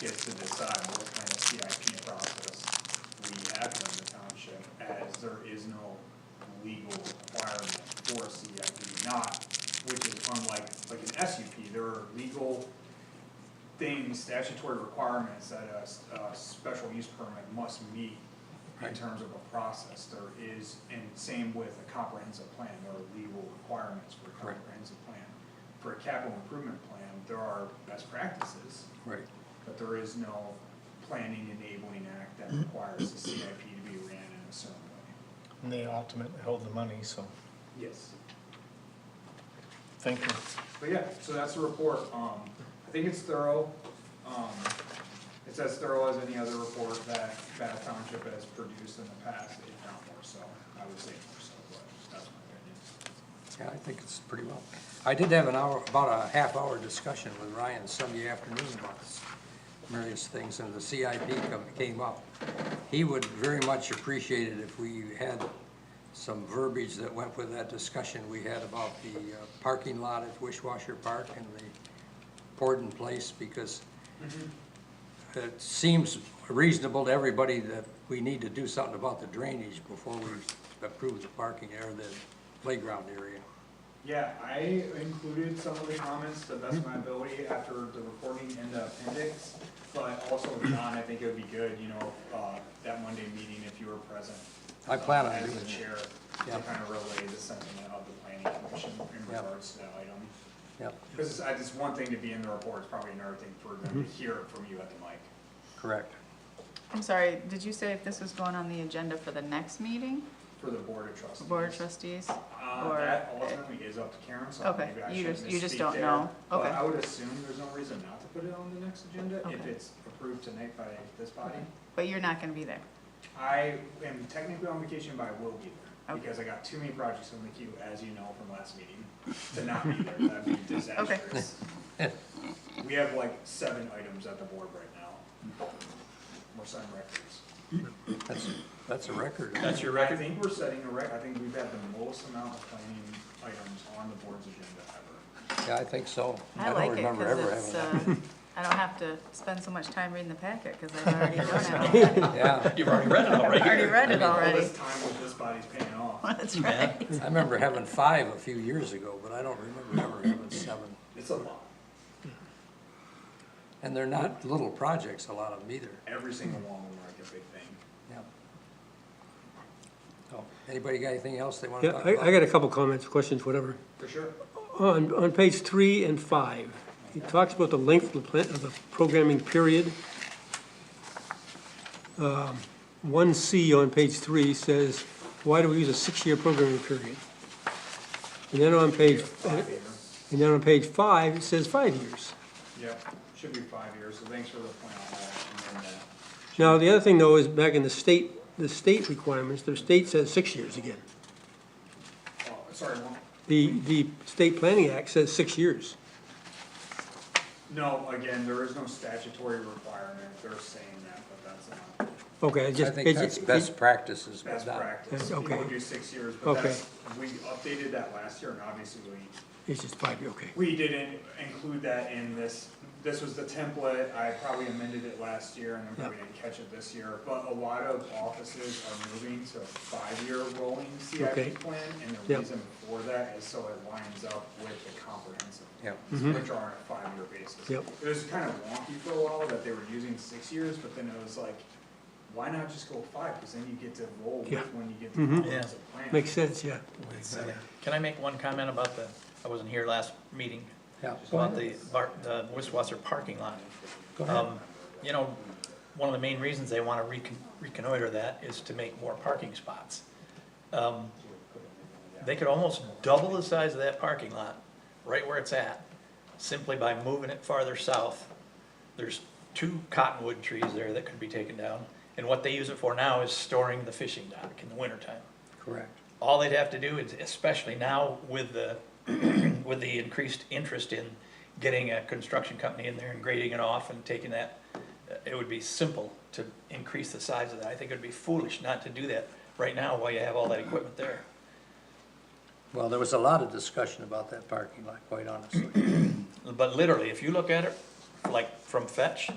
get to decide what kind of CIP process we have here in the township, as there is no legal requirement for a CIP, not, which is unlike, like an SUP, there are legal things, statutory requirements that a, s- a special use permit must meet in Right. terms of a process, there is, and same with a comprehensive plan, there are legal requirements for a Right. comprehensive plan. For a capital improvement plan, there are best practices, Right, but there is no planning enabling act that requires the CIP to be ran in a certain way. And they ultimately hold the money, so, Yes. thank you. But yeah, so that's the report, um, I think it's thorough, um, it's as thorough as any other report that Bath Township has produced in the past, if not more so, I would say more so, but that's my opinion. yeah, I think it's pretty well. I did have an hour, about a half hour discussion with Ryan Sunday afternoon about this, various things, and the CIP come- came up. He would very much appreciate it if we had some verbiage that went with that discussion we had about the uh, parking lot at Wishwasher Park and the Porden Place, because it seems reasonable to everybody that we need to do something about the drainage before we approve the parking or the playground area. Yeah, I included some of the comments to the best of my ability after the recording in the appendix, but also, John, I think it would be good, you know, uh, that Monday meeting, if you were present. I plan on uh, As doing the that. chair, to Yeah. kind of relay the sentiment of the planning commission in Yeah. regards to that item. Yep, Because it's, it's one thing to be in the report, it's probably another thing for Mm-hmm. them to hear it from you at the mic. correct. I'm sorry, did you say if this was going on the agenda for the next meeting, For the board of trustees. board of trustees? Uh, or- that ultimately is up to Karen, so Okay, maybe I you shouldn't just- you just misspeak don't there, know. But Okay. I would assume there's no reason not to put it on the next agenda if Okay. it's approved tonight by this body. But you're not gonna be there. I am technically on vacation, but I will be there, Okay. because I got too many projects in the queue, as you know from last meeting, to not be there, that'd be disastrous. We have like seven items at the board right now. We're setting records. That's, that's a record. That's your record? I think we're setting a rec, I think we've had the most amount of planning items on the board's agenda ever. Yeah, I think so. I don't like it remember ever because it's, having uh, I don't have to spend so much time reading the packet because I've already done it. that. Yeah, You've already read it I've already. already read it All already. this time with this body's paying off. That's right. I remember having five a few years ago, but I don't remember ever having seven. It's a lot, And they're not little projects, a lot of them either. every single one of them are like a big thing. Yep. So, anybody got anything else they want to Yeah, talk about? I, I got a couple comments, questions, whatever. For sure. On, on page three and five, he talks about the length of the plan, of the programming period. Um, One C on page three says, why do we use a six-year programming period? And then on page, Five years. and then on page five, it says five years. Yep, should be five years, so thanks for the point on that. And then, uh, Now, the other thing though is back in the state, the state requirements, the state says six years again. oh, Sorry, one, The, the State Planning Act says six years. no, again, there is no statutory requirement, they're saying that, but that's not Okay, I just. I think it's- that's best practices. but best not- practice. Yeah, People okay. do six years, but Okay. that's, we updated that last year, and obviously we It's just five, year, okay. We didn't include that in this, this was the template, I probably amended it last year and then probably didn't catch it this year, but a lot of offices are moving to a five-year rolling Okay. CIP plan, and the Yep. reason for that is so it lines up with the comprehensive. Yep. plans, Which are on a five-year basis. Mm-hmm. Yep. It was kind of wonky for a while that they were using six years, but then it was like, why not just go five, because then you get to roll with Yeah. Mm-hmm. when you get to the comprehensive plan. Makes sense, yeah. Can I make one comment about the, I wasn't here last meeting, Yeah. about the, bar- the Wiswasser parking lot. Go ahead. Um, You know, one of the main reasons they want to reconnoiter that is to make more parking spots. Um, They could almost double the size of that parking lot, right where it's at, simply by moving it farther south. There's two cottonwood trees there that could be taken down, and what they use it for now is storing the fishing dock in the wintertime. Correct. All they'd have to do is, especially now with the, with the increased interest in getting a construction company in there and grading it off and taking that, uh, it would be simple to increase the size of that. I think it would be foolish not to do that right now while you have all that equipment there. Well, there was a lot of discussion about that parking lot, quite honestly. But literally, if you look at it, like from Fetch,